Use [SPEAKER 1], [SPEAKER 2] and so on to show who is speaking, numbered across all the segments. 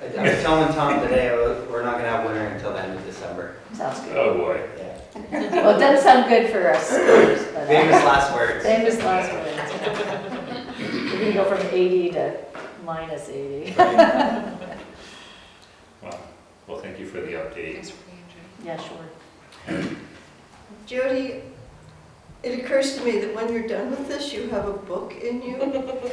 [SPEAKER 1] I was telling Tom today, I was- we're not gonna have winter until the end of December.
[SPEAKER 2] Sounds good.
[SPEAKER 3] Oh, boy.
[SPEAKER 1] Yeah.
[SPEAKER 2] Well, it doesn't sound good for us. Spurs, but, uh,
[SPEAKER 1] Famous last words.
[SPEAKER 2] Famous last words. We're gonna go from 80 to minus 80.
[SPEAKER 3] Wow. Well, thank you for the update.
[SPEAKER 4] Thanks for being
[SPEAKER 2] Yeah,
[SPEAKER 4] here.
[SPEAKER 2] sure.
[SPEAKER 5] Jody, it occurs to me that when you're done with this, you have a book in you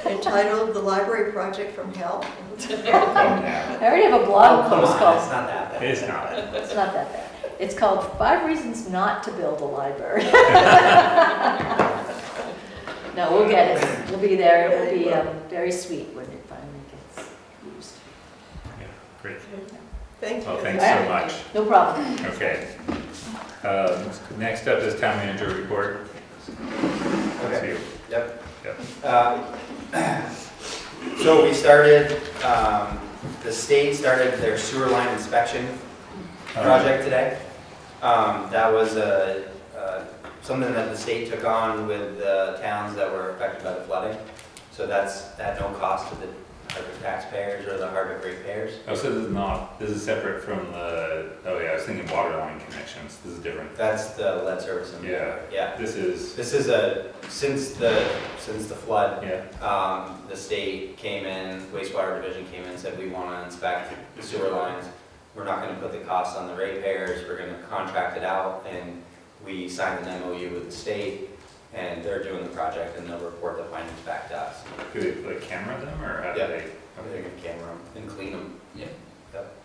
[SPEAKER 5] entitled The Library Project from Hell.
[SPEAKER 3] Come now.
[SPEAKER 2] I already have a
[SPEAKER 1] Oh,
[SPEAKER 2] blog
[SPEAKER 1] come
[SPEAKER 2] post
[SPEAKER 1] on, it's
[SPEAKER 2] called,
[SPEAKER 1] not that bad.
[SPEAKER 3] It's not.
[SPEAKER 2] it's not that bad. It's called Five Reasons Not to Build a Library. No, we'll get it. We'll be there. It'll be um, very sweet when it finally gets used.
[SPEAKER 3] Great.
[SPEAKER 5] Thank you.
[SPEAKER 3] Well, thanks so
[SPEAKER 2] Alright.
[SPEAKER 3] much.
[SPEAKER 2] No problem.
[SPEAKER 3] Okay. Um, Next up is town manager report. That's
[SPEAKER 1] Okay.
[SPEAKER 3] you.
[SPEAKER 1] Yep.
[SPEAKER 3] Yep.
[SPEAKER 1] Uh, So we started, um, the state started their sewer line inspection
[SPEAKER 3] Uh,
[SPEAKER 1] project today. Um, That was uh, uh, something that the state took on with the towns that were affected by the flooding. So that's at no cost to the Hardwick taxpayers or the Hardwick ratepayers.
[SPEAKER 3] Oh, so this is not, this is separate from the, oh yeah, I was thinking water line connections. This is different.
[SPEAKER 1] That's the lead service. and-
[SPEAKER 3] Yeah.
[SPEAKER 1] Yeah.
[SPEAKER 3] This is,
[SPEAKER 1] This is a, since the, since the flood,
[SPEAKER 3] yeah,
[SPEAKER 1] um, the state came in, wastewater division came in, and said, we want to inspect the sewer lines. We're not going to put the costs on the ratepayers, we're going to contract it out, and we signed an MOU with the state, and they're doing the project, and they'll report the findings back to us.
[SPEAKER 3] do they like camera them or how do
[SPEAKER 1] Yeah.
[SPEAKER 3] they?
[SPEAKER 1] They're going to camera them and clean them. Yeah.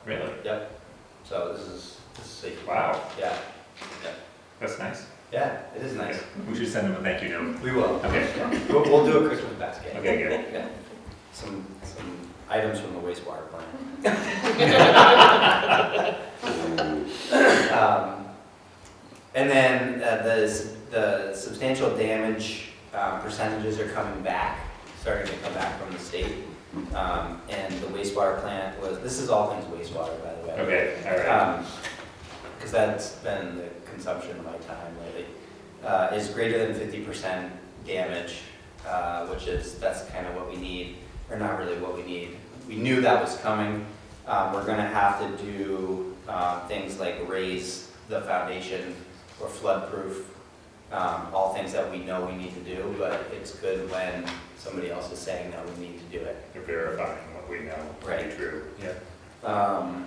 [SPEAKER 3] Really?
[SPEAKER 1] Yep. So this is, this is, a-
[SPEAKER 3] Wow,
[SPEAKER 1] yeah,
[SPEAKER 3] that's nice.
[SPEAKER 1] yeah, it is nice.
[SPEAKER 3] Okay. We should send them a thank you note.
[SPEAKER 1] We will.
[SPEAKER 3] Okay,
[SPEAKER 1] We'll, we'll do a Christmas basket.
[SPEAKER 3] okay, good.
[SPEAKER 1] Yeah. Some, some items from the wastewater plant. Um, And then uh, the, s- the substantial damage uh, percentages are coming back, starting to come back from the state. Um, And the wastewater plant was, this is all things wastewater, by the way.
[SPEAKER 3] Okay, all right.
[SPEAKER 1] Because Um, that's been the consumption of my time lately, uh, is greater than fifty percent damage, uh, which is, that's kind of what we need, or not really what we need. We knew that was coming. Um, We're gonna have to do uh, things like raise the foundation or floodproof, um, all things that we know we need to do, but it's good when somebody else is saying that we need to do it.
[SPEAKER 3] You're verifying what we know to be
[SPEAKER 1] Right.
[SPEAKER 3] true. Yeah.
[SPEAKER 1] Um,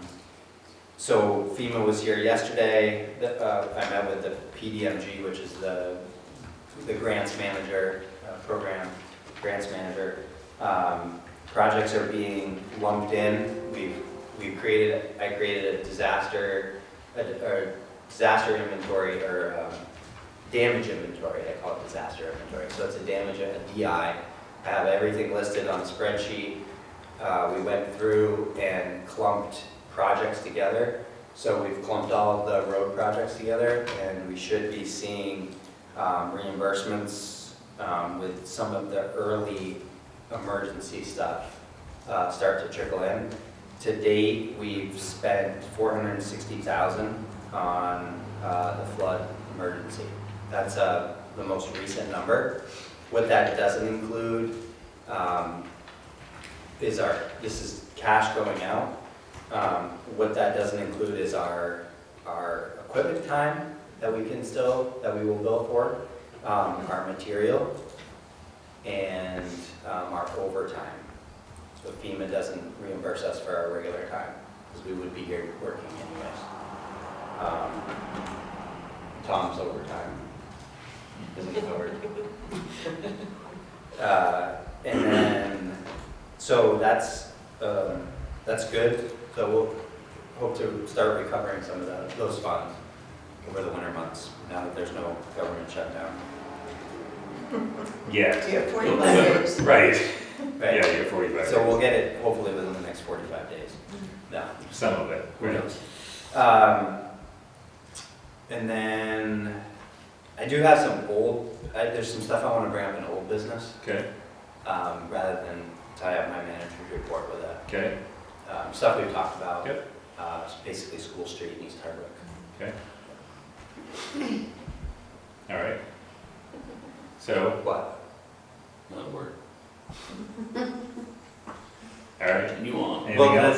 [SPEAKER 1] So FEMA was here yesterday, The- uh, I met with the PDMG, which is the, the grants manager, uh, program grants manager. Um, Projects are being lumped in, we've, we've created, I created a disaster, a- or disaster inventory, or um, damage inventory, I call it disaster inventory, so it's a damage, a DI. I have everything listed on a spreadsheet, uh, we went through and clumped projects together. So we've clumped all of the road projects together, and we should be seeing um, reimbursements um, with some of the early emergency stuff uh, start to trickle in. To date, we've spent 460000 on uh, the flood emergency. That's uh, the most recent number. What that doesn't include um, is our, this is cash going out. Um, What that doesn't include is our, our equipment time that we can still, that we will bill for, um, our material, and um, our overtime. So FEMA doesn't reimburse us for our regular time, because we would be here working anyways. Um, Tom's overtime isn't covered. Uh, And then, so that's, um, that's good. So we'll hope to start recovering some of that- those funds over the winter months, now that there's no government shutdown.
[SPEAKER 3] Yeah.
[SPEAKER 5] You have 45 days.
[SPEAKER 3] Right,
[SPEAKER 1] Right?
[SPEAKER 3] yeah, you're forty-five.
[SPEAKER 1] So we'll get it hopefully within the next 45 days. No,
[SPEAKER 3] Some of it,
[SPEAKER 1] who
[SPEAKER 3] right.
[SPEAKER 1] knows? Um, And then, I do have some old, I- there's some stuff I want to bring up in old business,
[SPEAKER 3] Okay,
[SPEAKER 1] um, rather than tie up my manager's report with it.
[SPEAKER 3] okay,
[SPEAKER 1] Um, Stuff we've talked about.
[SPEAKER 3] Yep.
[SPEAKER 1] Uh, it's Basically, School Street in East Hardwick.
[SPEAKER 3] all right. So,
[SPEAKER 1] What?
[SPEAKER 6] Not a word.
[SPEAKER 3] all right,
[SPEAKER 6] Continue on.
[SPEAKER 3] anything else?